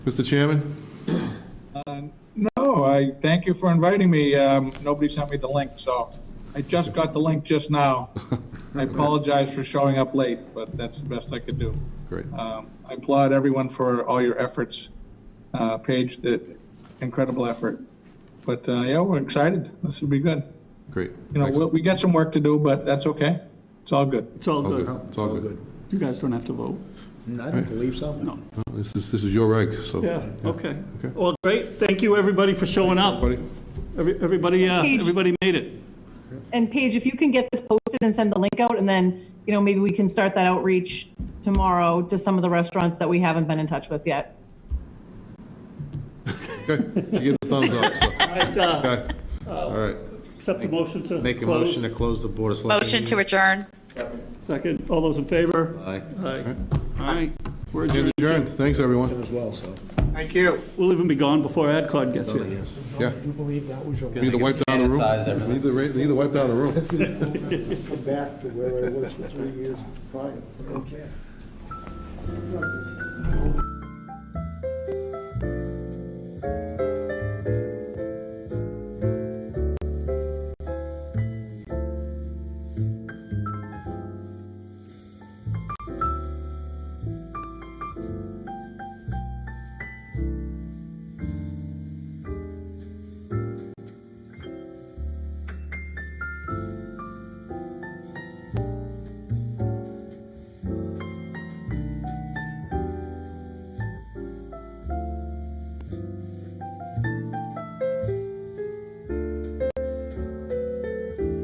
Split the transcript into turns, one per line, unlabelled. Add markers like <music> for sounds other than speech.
Mr. Chairman? <laughs>
No, Oh, I thank you for inviting me. Um, Nobody sent me the link, so I just got the link just now. I apologize for showing up late, but that's the best I could do.
Great.
Um, I applaud everyone for all your efforts. Uh, Paige, that incredible effort. But uh, yeah, we're excited. This will be good.
Great.
You know, we-
Excellent.
we got some work to do, but that's okay. It's all good.
It's all
All
good.
good. It's all good.
You guys don't have to vote.
I don't believe so. No.
This is, this is your reg, so.
Yeah, okay. Well, great. Thank you, everybody, for showing up.
Buddy?
Every- Everybody, uh,
Huge.
everybody made it.
And Paige, if you can get this posted and send the link out, and then, you know, maybe we can start that outreach tomorrow to some of the restaurants that we haven't been in touch with yet.
Okay, she gave the thumbs up, so,
Right, uh,
okay. All right.
Accept the motion to
Make a
close.
motion to close the Board of Selectmen.
Motion to
meeting.
adjourn.
Second, all those in favor?
Aye.
Aye. All right, we're
Stand
adjourned.
adjourned. Thanks, everyone.
As well, so.
We'll even be gone before AdCon gets here.
Yeah.
Do you believe that was your
We Need to wipe down the room.
Sanitize everything.
We Need to, ra- we need to wipe down the room.
back to where I was for three years prior? Okay.